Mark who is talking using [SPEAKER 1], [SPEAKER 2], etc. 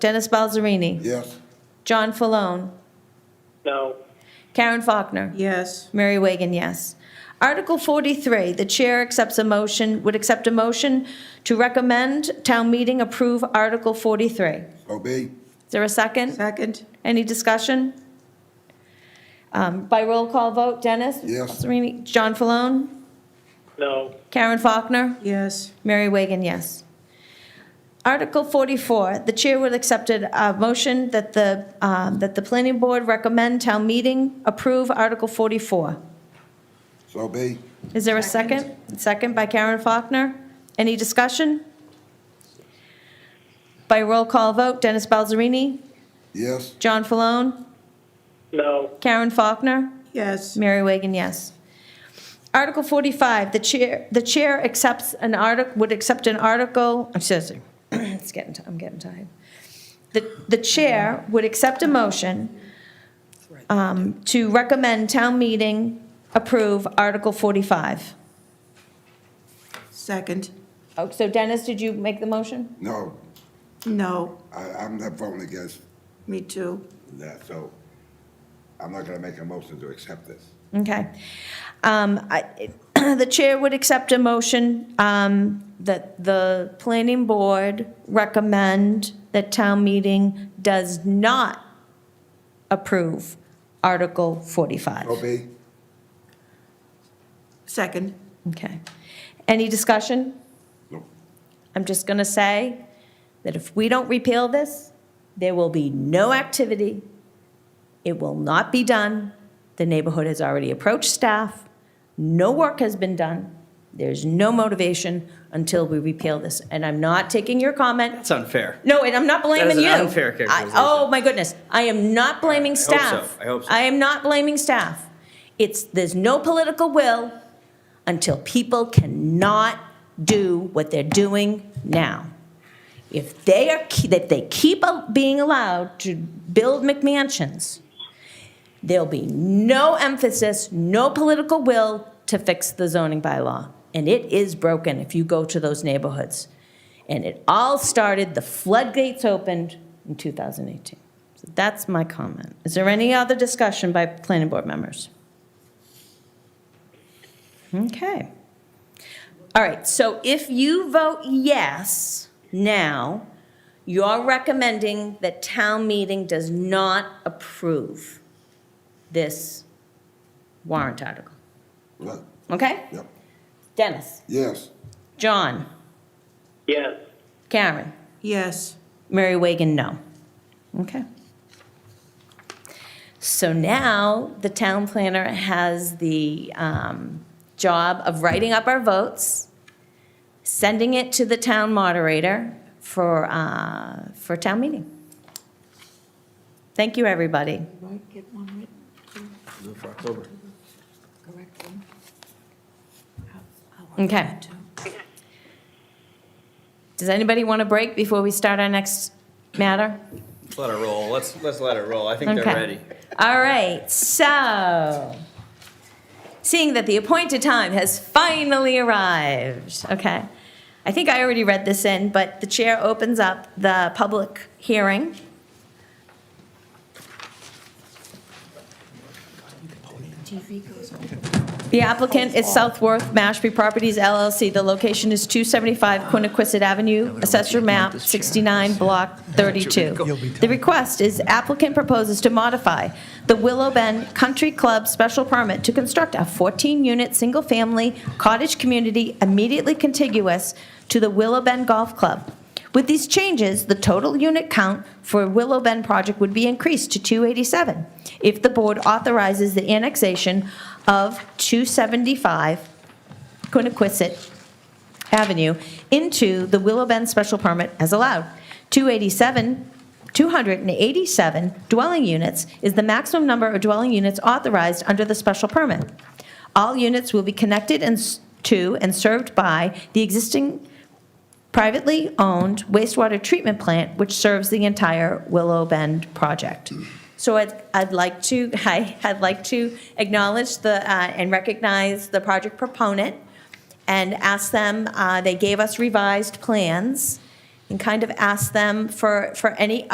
[SPEAKER 1] Dennis Balzerini.
[SPEAKER 2] Yes.
[SPEAKER 1] John Falone.
[SPEAKER 3] no,
[SPEAKER 1] Karen Faulkner.
[SPEAKER 4] yes,
[SPEAKER 1] Mary Wagon, yes. Article 43, the chair accepts a motion, would accept a motion to recommend town meeting approve Article 43. Is
[SPEAKER 2] So be.
[SPEAKER 1] there a second?
[SPEAKER 4] second,
[SPEAKER 1] Any discussion? Um, By roll call vote, Dennis?
[SPEAKER 2] Yes.
[SPEAKER 1] Sereni- John Falone?
[SPEAKER 3] no,
[SPEAKER 1] Karen Faulkner?
[SPEAKER 4] yes,
[SPEAKER 1] Mary Wagon, yes. Article 44, the chair would accept a motion that the, um, that the planning board recommend town meeting approve Article 44.
[SPEAKER 2] So be.
[SPEAKER 1] Is there a second? Second by Karen Faulkner. Any discussion? By roll call vote, Dennis Balzerini,
[SPEAKER 2] Yes.
[SPEAKER 1] John Falone,
[SPEAKER 3] no,
[SPEAKER 1] Karen Faulkner,
[SPEAKER 4] yes,
[SPEAKER 1] Mary Wagon, yes. Article 45, the chair, the chair accepts an article, would accept an article, I'm sorry, it's getting, ti- I'm getting tired. The, the chair would accept a motion um, to recommend town meeting approve Article 45.
[SPEAKER 4] second,
[SPEAKER 1] Oh, so Dennis, did you make the motion?
[SPEAKER 2] No,
[SPEAKER 4] no,
[SPEAKER 2] I, I'm not voting against
[SPEAKER 4] me too,
[SPEAKER 2] that, so I'm not gonna make a motion to accept this.
[SPEAKER 1] Okay. Um, I- The chair would accept a motion um, that the planning board recommend that town meeting does not approve Article
[SPEAKER 2] So
[SPEAKER 1] 45.
[SPEAKER 2] be.
[SPEAKER 4] second,
[SPEAKER 1] Okay. Any discussion?
[SPEAKER 2] No.
[SPEAKER 1] I'm just going to say that if we don't repeal this, there will be no activity. It will not be done. The neighborhood has already approached staff. No work has been done. There's no motivation until we repeal this. And I'm not taking your comment.
[SPEAKER 5] That's unfair.
[SPEAKER 1] No, and I'm not blaming
[SPEAKER 5] an
[SPEAKER 1] you.
[SPEAKER 5] unfair
[SPEAKER 1] I-
[SPEAKER 5] characterization.
[SPEAKER 1] Oh, my goodness. I am not blaming
[SPEAKER 5] so.
[SPEAKER 1] staff.
[SPEAKER 5] I hope so.
[SPEAKER 1] I am not blaming staff. It's, there's no political will until people cannot do what they're doing now. If they are, ke- if they keep a- being allowed to build McMansions, there'll be no emphasis, no political will to fix the zoning bylaw. And it is broken if you go to those neighborhoods. And it all started, the floodgates opened in 2018. So that's my comment. Is there any other discussion by planning board members? Okay. All right, so if you vote yes now, you're recommending that town meeting does not approve this warrant article,
[SPEAKER 2] Right.
[SPEAKER 1] okay?
[SPEAKER 2] Yep.
[SPEAKER 1] Dennis,
[SPEAKER 2] Yes.
[SPEAKER 1] John,
[SPEAKER 3] yes,
[SPEAKER 1] Karen,
[SPEAKER 4] yes,
[SPEAKER 1] Mary Wagon, no. Okay. So now the town planner has the um, job of writing up our votes, sending it to the town moderator for, uh, for town meeting. Thank you, everybody.
[SPEAKER 6] Right, get one written,
[SPEAKER 5] For October.
[SPEAKER 6] correct one. I'll- I'll work
[SPEAKER 1] Okay.
[SPEAKER 6] on it too.
[SPEAKER 1] Does anybody want a break before we start our next matter?
[SPEAKER 5] Let it roll. Let's, let's let it roll. I think they're
[SPEAKER 1] Okay.
[SPEAKER 5] ready.
[SPEAKER 1] All right, so, seeing that the appointed time has finally arrived, okay. I think I already read this in, but the chair opens up the public hearing.
[SPEAKER 6] TV goes on.
[SPEAKER 1] The applicant is Southworth Mashpee Properties LLC. The location is 275 Quiniquisette Avenue, Assessor Map 69, Block 32. The request is applicant proposes to modify the Willow Bend Country Club special permit to construct a 14-unit, single-family cottage community immediately contiguous to the Willow Bend Golf Club. With these changes, the total unit count for Willow Bend project would be increased to 287 if the board authorizes the annexation of 275 Quiniquisette Avenue into the Willow Bend special permit as allowed. 287, 287 dwelling units is the maximum number of dwelling units authorized under the special permit. All units will be connected and s- to and served by the existing privately owned wastewater treatment plant, which serves the entire Willow Bend project. So I'd, I'd like to, I, I'd like to acknowledge the, uh, and recognize the project proponent and ask them, uh, they gave us revised plans and kind of ask them for, for any